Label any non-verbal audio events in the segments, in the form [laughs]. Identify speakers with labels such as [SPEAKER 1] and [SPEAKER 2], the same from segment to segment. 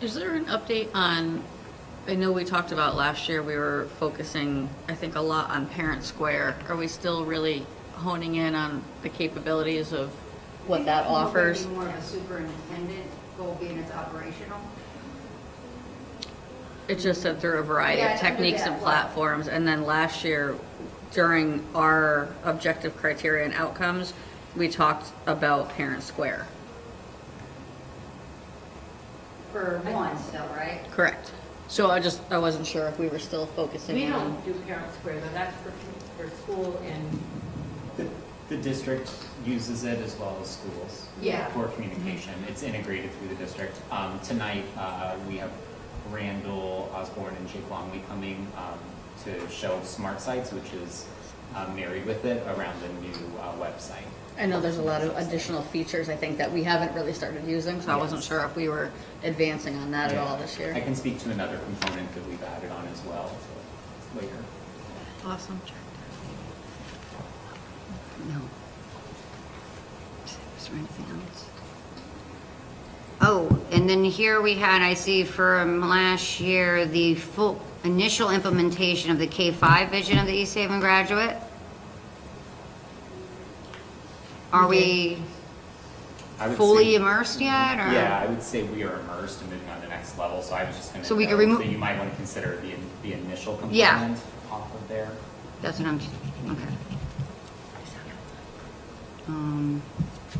[SPEAKER 1] Is there an update on, I know we talked about last year, we were focusing, I think, a lot on Parent Square. Are we still really honing in on the capabilities of what that offers?
[SPEAKER 2] More of a superintendent goal being it's operational.
[SPEAKER 1] It just said through a variety
[SPEAKER 2] Yeah, I
[SPEAKER 1] of
[SPEAKER 2] know
[SPEAKER 1] techniques
[SPEAKER 2] that.
[SPEAKER 1] and platforms, and then last year, during our objective criteria and outcomes, we talked about Parent Square.
[SPEAKER 2] For one still, right?
[SPEAKER 1] Correct. So I just, I wasn't sure if we were still focusing
[SPEAKER 3] We
[SPEAKER 1] in
[SPEAKER 3] don't
[SPEAKER 1] on.
[SPEAKER 3] do parent square, though, that's for, for school and,
[SPEAKER 4] The, the district uses it as well as schools.
[SPEAKER 2] Yeah.
[SPEAKER 4] For communication, it's integrated through the district. Um, tonight, uh, we have Randall, Osborne, and Jake Longley coming, um, to show Smart Sites, which is, um, married with it around the new, uh, website.
[SPEAKER 1] I know there's a lot of additional features, I think, that we haven't really started using, so I wasn't
[SPEAKER 4] Yes.
[SPEAKER 1] sure if we were advancing on that at all
[SPEAKER 4] Yeah.
[SPEAKER 1] this
[SPEAKER 4] I
[SPEAKER 1] year.
[SPEAKER 4] can speak to another component that we've added on as well so later.
[SPEAKER 1] Awesome. No. Is there anything else?
[SPEAKER 2] Oh, and then here we had, I see from last year, the full initial implementation of the K-5 vision of the East Haven graduate. Are we
[SPEAKER 4] I would
[SPEAKER 2] fully
[SPEAKER 4] say-
[SPEAKER 2] immersed yet, or?
[SPEAKER 4] Yeah, I would say we are immersed and moving on to the next level, so I was just gonna.
[SPEAKER 2] So we
[SPEAKER 4] note
[SPEAKER 2] could remo-
[SPEAKER 4] That you might wanna consider the, in- the initial
[SPEAKER 2] Yeah.
[SPEAKER 4] component off of there.
[SPEAKER 2] That's what I'm, okay. Um,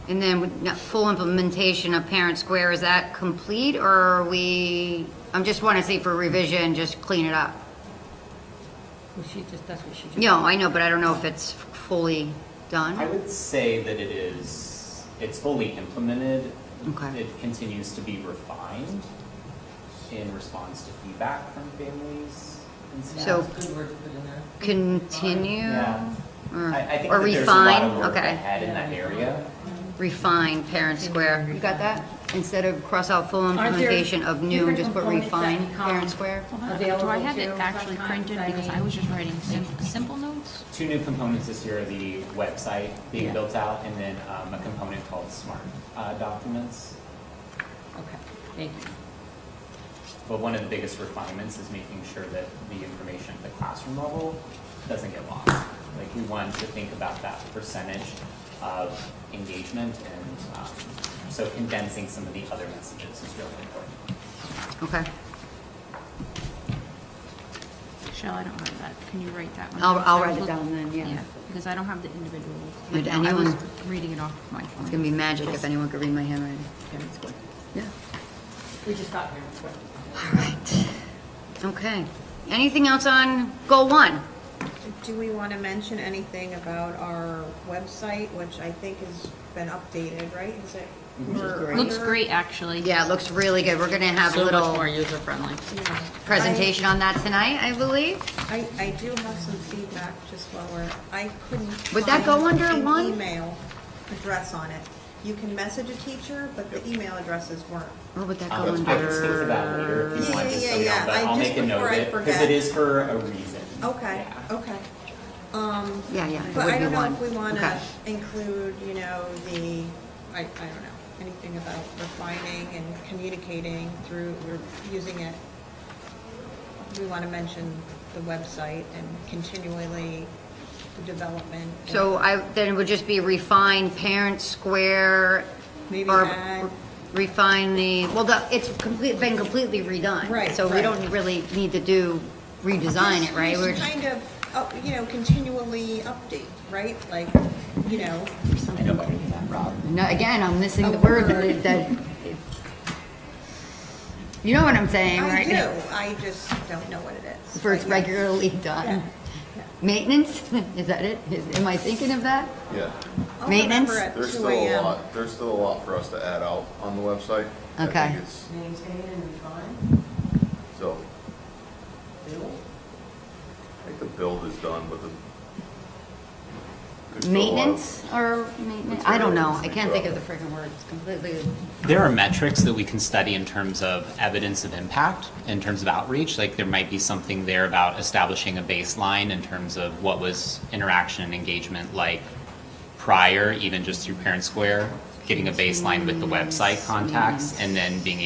[SPEAKER 2] And then with no- full implementation of Parent Square, is that complete, or are we, I'm just want to say for revision, just clean it up?
[SPEAKER 3] well, she just, that's what she just.
[SPEAKER 2] No, I know, but I don't know if it's fully done.
[SPEAKER 4] I would say that it is, it's fully implemented.
[SPEAKER 2] Okay.
[SPEAKER 4] It continues to be refined in response to feedback from families and staff.
[SPEAKER 2] So
[SPEAKER 3] That's a good word to put in there.
[SPEAKER 2] continue?
[SPEAKER 4] Yeah.
[SPEAKER 2] Or
[SPEAKER 4] I, I think
[SPEAKER 2] Mm. or
[SPEAKER 4] that there's a lot of
[SPEAKER 2] refine,
[SPEAKER 4] work
[SPEAKER 2] okay.
[SPEAKER 4] ahead in that area.
[SPEAKER 2] Refine Parent Square. You got that? Instead of cross out full
[SPEAKER 3] there
[SPEAKER 2] implementation of new,
[SPEAKER 3] different
[SPEAKER 2] just put
[SPEAKER 3] components that
[SPEAKER 2] refine
[SPEAKER 3] become
[SPEAKER 2] Parent Square?
[SPEAKER 3] Available
[SPEAKER 5] Do I have it
[SPEAKER 3] to
[SPEAKER 5] actually
[SPEAKER 3] sometimes,
[SPEAKER 5] printed,
[SPEAKER 3] I
[SPEAKER 5] because I
[SPEAKER 3] mean-
[SPEAKER 5] was just writing sim- simple notes?
[SPEAKER 4] Two new components this year, the website being
[SPEAKER 5] Yeah.
[SPEAKER 4] built out, and then um, a component called Smart uh, Documents.
[SPEAKER 5] Okay, thank you.
[SPEAKER 4] But one of the biggest refinements is making sure that the information at the classroom level doesn't get lost. Like, we want to think about that percentage of engagement, and um, so condensing some of the other messages is really important.
[SPEAKER 3] Oh.
[SPEAKER 2] Okay.
[SPEAKER 5] Shell, I don't have that, can you write that one?
[SPEAKER 2] I'll- I'll
[SPEAKER 5] I
[SPEAKER 2] write it
[SPEAKER 5] look-
[SPEAKER 2] down then, yeah.
[SPEAKER 5] Because I don't have the individual.
[SPEAKER 2] Would
[SPEAKER 5] I was
[SPEAKER 2] anyone-
[SPEAKER 5] Reading it off my
[SPEAKER 2] It's gonna
[SPEAKER 5] phone.
[SPEAKER 2] be magic if anyone could read my handwriting. Parent Square. Yeah.
[SPEAKER 3] We just got parent square.
[SPEAKER 2] All right. Okay. Anything else on goal one?
[SPEAKER 6] Do we want to mention anything about our website, which I think has been updated, right? Is it?
[SPEAKER 4] Which is
[SPEAKER 6] or
[SPEAKER 1] great.
[SPEAKER 5] Looks
[SPEAKER 6] under-
[SPEAKER 5] great, actually.
[SPEAKER 2] Yeah, it looks really good. We're gonna have a
[SPEAKER 1] So much more
[SPEAKER 2] little
[SPEAKER 1] user friendly.
[SPEAKER 2] presentation on that tonight, I believe.
[SPEAKER 6] I, I do have some feedback just while we're, I couldn't.
[SPEAKER 2] Would that go
[SPEAKER 6] find
[SPEAKER 2] under
[SPEAKER 6] an
[SPEAKER 2] one?
[SPEAKER 6] Email address on it. You can message a teacher, but the email addresses weren't.
[SPEAKER 2] What would Oh, that go
[SPEAKER 1] Ah,
[SPEAKER 4] Um, I can speak to that later
[SPEAKER 2] under?
[SPEAKER 4] if you
[SPEAKER 6] Yeah,
[SPEAKER 4] want,
[SPEAKER 6] yeah,
[SPEAKER 4] just so
[SPEAKER 6] yeah,
[SPEAKER 4] we know,
[SPEAKER 6] yeah.
[SPEAKER 4] but
[SPEAKER 6] I-
[SPEAKER 4] I'll
[SPEAKER 6] just
[SPEAKER 4] make a note
[SPEAKER 6] before
[SPEAKER 4] of
[SPEAKER 6] I
[SPEAKER 4] it, because it
[SPEAKER 6] forget.
[SPEAKER 4] is for a reason.
[SPEAKER 6] Okay,
[SPEAKER 4] Yeah.
[SPEAKER 6] okay. Um,
[SPEAKER 2] Yeah, yeah. it
[SPEAKER 6] But
[SPEAKER 2] would
[SPEAKER 6] I
[SPEAKER 2] be
[SPEAKER 6] don't know
[SPEAKER 2] one.
[SPEAKER 6] if we want
[SPEAKER 2] Okay.
[SPEAKER 6] to include, you know, the, I, I don't know, anything about refining and communicating through, we're using it. We want to mention the website and continually the development. and
[SPEAKER 2] So I, then it would just be refine parent square.
[SPEAKER 6] Maybe
[SPEAKER 2] or
[SPEAKER 6] add-
[SPEAKER 2] Refine the, well, the, it's complete, been completely redone.
[SPEAKER 6] Right,
[SPEAKER 2] So we
[SPEAKER 6] right.
[SPEAKER 2] don't really need to do, redesign it, right? We're
[SPEAKER 6] Just
[SPEAKER 2] just-
[SPEAKER 6] kind of, uh, you know, continually update, right? Like, you know,
[SPEAKER 4] I know better than that, Rob.
[SPEAKER 2] No, again, I'm missing
[SPEAKER 6] A
[SPEAKER 2] the word
[SPEAKER 6] word.
[SPEAKER 2] that, that- you know what I'm saying,
[SPEAKER 6] I
[SPEAKER 2] right?
[SPEAKER 6] do, I just don't know what it is.
[SPEAKER 2] For it's
[SPEAKER 6] But yeah.
[SPEAKER 2] regularly
[SPEAKER 6] Yeah,
[SPEAKER 2] done.
[SPEAKER 6] yeah.
[SPEAKER 2] Maintenance, [laughs] is that it? Is, am I thinking of that?
[SPEAKER 7] Yeah,
[SPEAKER 6] I'll
[SPEAKER 2] Maintenance?
[SPEAKER 6] remember at
[SPEAKER 7] there's
[SPEAKER 6] 2
[SPEAKER 7] still a
[SPEAKER 6] a.m.
[SPEAKER 7] lot, there's still a lot for us to add out on the website. I
[SPEAKER 2] Okay.
[SPEAKER 7] think it's
[SPEAKER 3] Maintain and refine,
[SPEAKER 7] still,
[SPEAKER 3] build.
[SPEAKER 7] I think the build is done, but the. there's still a lot of-
[SPEAKER 2] Maintenance or maintenance? I don't know. I can't think of the
[SPEAKER 7] Materials.
[SPEAKER 2] freaking word. It's completely,
[SPEAKER 4] There are metrics that we can study in terms of evidence of impact, in terms of outreach. Like there might be something there about establishing a baseline in terms of what was interaction and engagement like prior, even just through Parent Square, getting a baseline with the website contacts, and then being able